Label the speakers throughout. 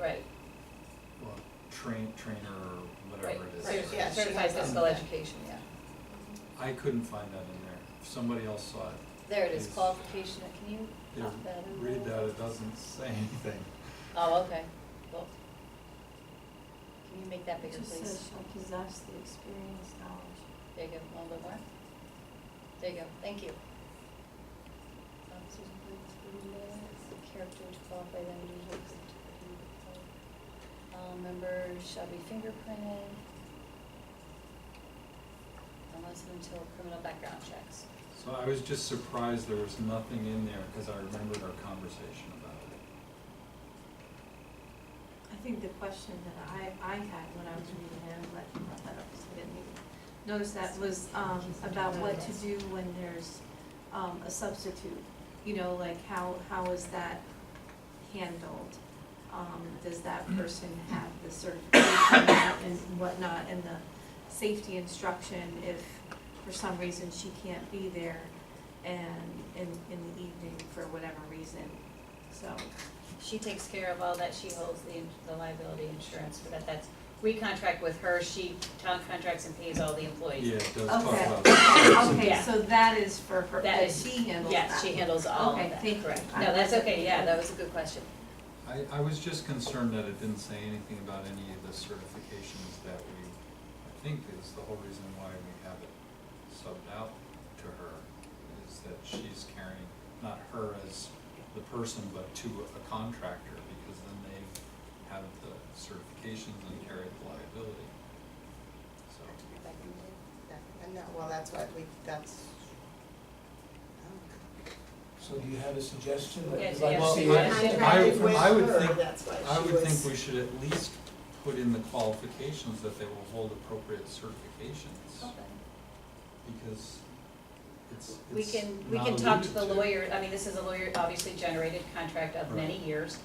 Speaker 1: right,
Speaker 2: well, train, trainer or
Speaker 1: right,
Speaker 2: whatever it is.
Speaker 1: Cer-
Speaker 3: Right, yeah, she
Speaker 1: certified
Speaker 3: has that.
Speaker 1: physical education, yeah.
Speaker 2: I couldn't find that in there. If somebody else saw it,
Speaker 1: There it is,
Speaker 2: Yes.
Speaker 1: qualification, can you
Speaker 2: they
Speaker 1: pop that in?
Speaker 2: read
Speaker 1: there?
Speaker 2: that, it doesn't say anything.
Speaker 1: Oh, okay, well, can you make that bigger,
Speaker 4: It just
Speaker 1: please?
Speaker 4: says shall possess the experience, knowledge.
Speaker 1: There you go, a little bit more. There you go, thank you. Um, Susan, please, read the Character which qualify them to use it. Um, members shall be fingerprinted unless and until criminal background checks.
Speaker 2: So I was just surprised there was nothing in there, cause I remembered our conversation about it.
Speaker 4: I think the question that I, I had when I was reading it, I'm glad you brought that up, because I didn't even notice that, was, um, about what to do when there's, um, a substitute. You know, like how, how is that handled? Um, does that person have the certification and whatnot, and the safety instruction if for some reason she can't be there and in, in the evening for whatever reason, so.
Speaker 1: She takes care of all that, she holds the, ins- the liability insurance for that, that's, we contract with her, she, town contracts and pays all the
Speaker 2: Yeah,
Speaker 1: employees.
Speaker 2: it does talk
Speaker 4: Okay.
Speaker 2: about.
Speaker 4: Okay,
Speaker 1: Yeah.
Speaker 4: so that is for her,
Speaker 1: That
Speaker 4: that
Speaker 1: is-
Speaker 4: she handles that.
Speaker 1: Yes, she handles all of
Speaker 4: Okay,
Speaker 1: that,
Speaker 4: thank you.
Speaker 1: correct.
Speaker 4: I
Speaker 1: No, that's
Speaker 4: wasn't-
Speaker 1: okay, yeah, that was a good question.
Speaker 2: I, I was just concerned that it didn't say anything about any of the certifications that we, I think is the whole reason why we have it subbed out to her, is that she's carrying, not her as the person, but to a contractor, because then they have the certifications and carry the liability. So,
Speaker 3: That can be- that- And that, well, that's what we, that's, oh,
Speaker 5: So do you have a suggestion that
Speaker 1: Yes,
Speaker 5: you'd like
Speaker 1: yes,
Speaker 5: to see?
Speaker 1: yes.
Speaker 5: added?
Speaker 2: I-
Speaker 3: Contracted with
Speaker 2: I would
Speaker 3: her,
Speaker 2: think-
Speaker 3: that's why
Speaker 2: I
Speaker 3: she
Speaker 2: would
Speaker 3: was-
Speaker 2: think we should at least put in the qualifications that they will hold appropriate certifications. because it's,
Speaker 1: We
Speaker 2: it's
Speaker 1: can, we
Speaker 2: not
Speaker 1: can talk to
Speaker 2: alluded
Speaker 1: the lawyer, I mean, this is a lawyer, obviously generated contract of many years.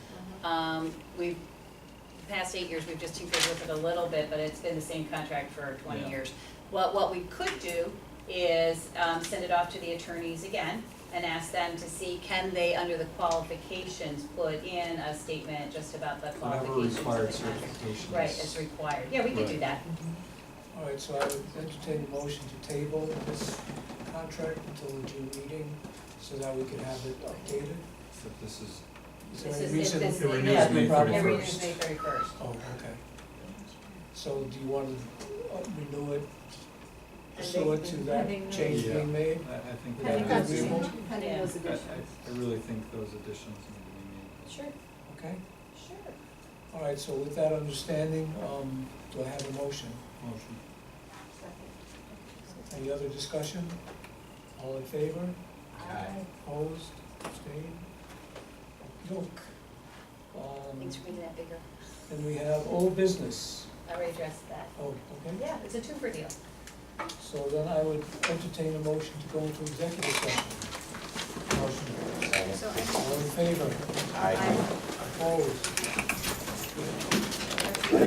Speaker 1: Um, we've, the past eight years, we've just tinkered with it a little bit, but it's been the same contract for twenty
Speaker 2: Yeah.
Speaker 1: years. What, what we could do is, um, send it off to the attorneys again and ask them to see, can they, under the qualifications, put in a statement just about the
Speaker 2: Whatever
Speaker 1: qualifications of the
Speaker 2: required
Speaker 1: contract?
Speaker 2: certifications.
Speaker 1: Right, it's required, yeah, we could do
Speaker 2: Right.
Speaker 1: that,
Speaker 5: All right, so I would entertain a motion to table this contract until the June meeting so that we can have it updated.
Speaker 2: But this is,
Speaker 5: Is there
Speaker 1: This
Speaker 5: any
Speaker 1: is-
Speaker 5: reason?
Speaker 1: this is-
Speaker 2: It renews
Speaker 5: that's been
Speaker 2: May
Speaker 5: problem?
Speaker 1: yeah,
Speaker 2: Every-
Speaker 1: readers May thirty first.
Speaker 5: Oh, okay. So do you want to uh, renew it, pursue it to
Speaker 4: Pending
Speaker 5: that
Speaker 4: those-
Speaker 5: change
Speaker 2: Yeah.
Speaker 5: being made?
Speaker 2: I, I think that
Speaker 5: I think
Speaker 2: would
Speaker 5: that's
Speaker 2: be-
Speaker 5: reasonable.
Speaker 4: Pending
Speaker 2: I, I,
Speaker 4: those additions.
Speaker 2: I really think those additions need to be made.
Speaker 1: Sure,
Speaker 5: Okay,
Speaker 1: sure.
Speaker 5: all right, so with that understanding, um, do I have a motion?
Speaker 2: Motion.
Speaker 5: Any other discussion? All in favor?
Speaker 2: Aye.
Speaker 5: Opposed, abstained? Look, um,
Speaker 1: Thanks for making that bigger. uh,
Speaker 5: and we have old business.
Speaker 1: I already addressed that.
Speaker 5: Oh, okay.
Speaker 1: Yeah, it's a two-for deal.
Speaker 5: So then I would entertain a motion to go into executive session. Motion.
Speaker 1: So I
Speaker 5: All in favor?
Speaker 4: Aye.
Speaker 5: Opposed?